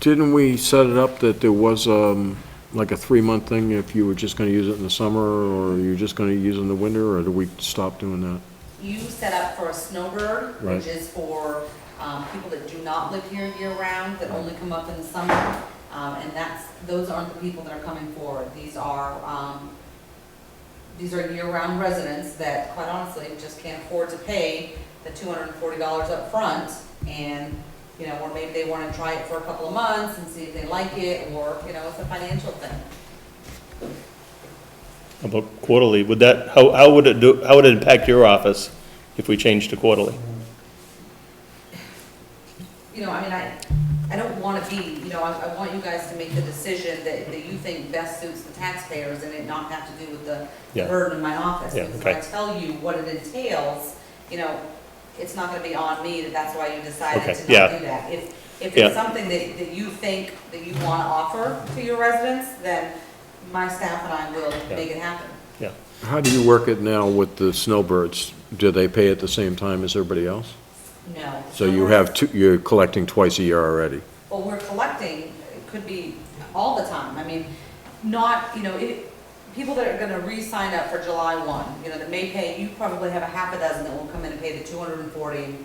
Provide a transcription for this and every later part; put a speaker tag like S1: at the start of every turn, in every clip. S1: Didn't we set it up that there was, um, like a three-month thing if you were just gonna use it in the summer, or you're just gonna use it in the winter, or do we stop doing that?
S2: You set up for a snowbird,
S1: Right.
S2: which is for um, people that do not live here year-round, that only come up in the summer. Um, And that's, those aren't the people that are coming forward. These are, um, these are year-round residents that quite honestly just can't afford to pay the two hundred and forty dollars up front, And, you know, or maybe they want to try it for a couple of months and see if they like it or, you know, it's a financial thing.
S3: How About quarterly, would that, how, how would it do, how would it impact your office if we changed to quarterly?
S2: you know, I mean, I, I don't want to be, you know, I, I want you guys to make the decision that, that you think best suits the taxpayers and it not have to do with the
S3: Yeah.
S2: burden in my office.
S3: Yeah,
S2: Because if I
S3: okay.
S2: tell you what it entails, you know, it's not going to be on me that that's why you decided
S3: Okay,
S2: to not
S3: yeah.
S2: do that. If, if
S3: Yeah.
S2: it's something that, that you think that you want to offer to your residents, then my staff and I will
S3: Yeah.
S2: make it happen.
S3: Yeah,
S1: How do you work it now with the snowbirds? Do they pay at the same time as everybody else?
S2: No.
S1: So you have two, you're collecting twice a year already?
S2: what we're collecting could be all the time. I mean, not, you know, it, people that are gonna re-sign up for July one, you know, that may pay, you probably have a half a dozen that will come in and pay the two hundred and forty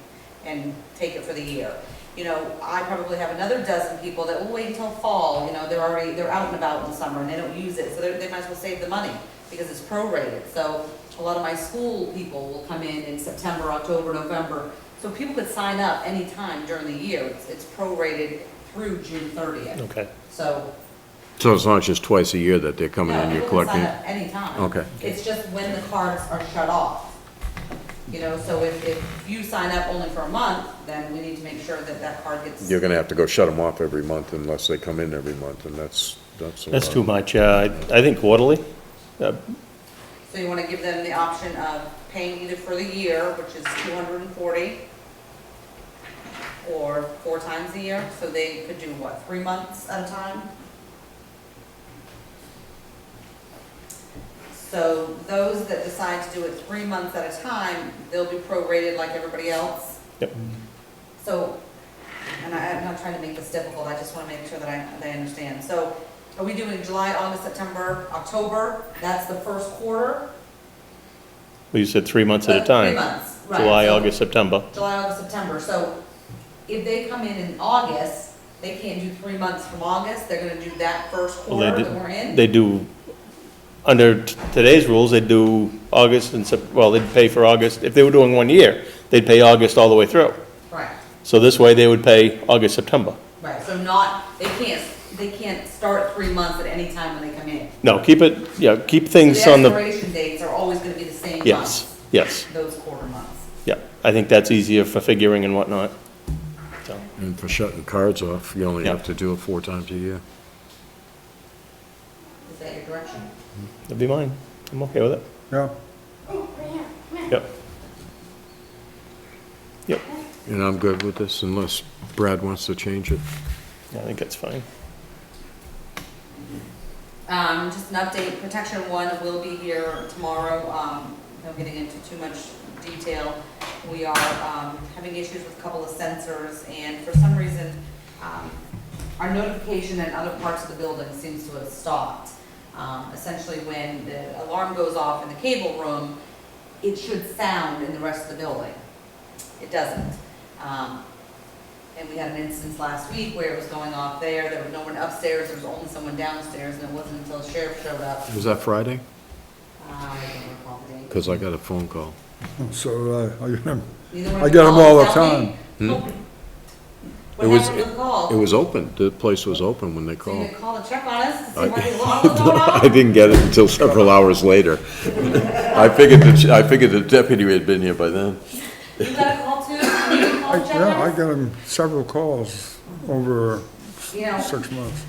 S2: and take it for the year. You know, I probably have another dozen people that will wait until fall, you know, they're already, they're out and about in the summer and they don't use it, so they, they might as well save the money because it's prorated. So a lot of my school people will come in in September, October, November. So people could sign up anytime during the year. It's, it's prorated through June thirtieth.
S3: okay.
S2: So
S1: So it's not just twice a year that they're coming in,
S2: no,
S1: you're
S2: people can sign
S1: collecting?
S2: up anytime.
S1: Okay.
S2: It's just when the cards are shut off. You know, so if, if you sign up only for a month, then we need to make sure that that card gets.
S1: You're gonna have to go shut them off every month unless they come in every month, and that's, that's a lot.
S3: That's too much, yeah, I, I think quarterly, uh,
S2: So you wanna give them the option of paying either for the year, which is two hundred and forty, or four times a year, so they could do what, three months at a time? So those that decide to do it three months at a time, they'll be prorated like everybody else.
S3: Yep.
S2: So, and I, I'm not trying to make this difficult, I just wanna make sure that I, that I understand. So are we doing July, August, September, October? That's the first quarter?
S3: well, you said three months at a
S2: Uh,
S3: time.
S2: Three months, right.
S3: July,
S2: So
S3: August, September,
S2: July, August, September, so if they come in in August, they can't do three months from August, they're gonna do that first
S3: Well, they
S2: quarter that
S3: did-
S2: we're in?
S3: they do, under t- today's rules, they do August and Sep, well, they'd pay for August, if they were doing one year, they'd pay August all the way through.
S2: Right,
S3: So this way, they would pay August, September.
S2: right, so not, they can't, they can't start three months at any time when they come in.
S3: No, keep it, yeah, keep things on
S2: The
S3: the,
S2: expiration dates are always gonna be the same
S3: yes,
S2: month,
S3: yes,
S2: those quarter months.
S3: yeah, I think that's easier for figuring and whatnot, so.
S1: And for shutting cards off, you only
S3: Yeah.
S1: have to do it four times a year.
S2: Is that your direction?
S3: That'd be mine. I'm okay with it.
S4: Yeah,
S3: Yep. Yep,
S1: And I'm good with this unless Brad wants to change it.
S3: I think that's fine.
S2: Um, just an update, protection one will be here tomorrow, um, no getting into too much detail. We are, um, having issues with a couple of sensors, and for some reason, um, our notification in other parts of the building seems to have stopped. Um, essentially, when the alarm goes off in the cable room, it should sound in the rest of the building. It doesn't. Um, and we had an instance last week where it was going off there, there was no one upstairs, there was only someone downstairs, and it wasn't until the sheriff showed up.
S1: Was that Friday?
S2: Uh, I don't recall the date.
S1: Because I got a phone call.
S4: so, uh, I remember.
S2: Neither one
S4: I
S2: of
S4: get 'em
S2: calls
S4: all the
S2: tell me.
S1: Hmm? It
S2: What
S1: was-
S2: happened to the call?
S1: It was open, the place was open when they
S2: So you
S1: called.
S2: could call to check on us, to see
S1: I-
S2: what the alarm was going
S1: I
S2: off?
S1: didn't get it until several hours later. I figured, the- I figured the deputy had been here by then.
S2: You got a call too? You can
S4: I-
S2: call to check
S4: Yeah, I
S2: on us?
S4: got him several calls over
S2: You know,
S4: six months.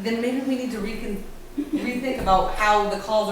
S2: then maybe we need to recon, rethink about how the calls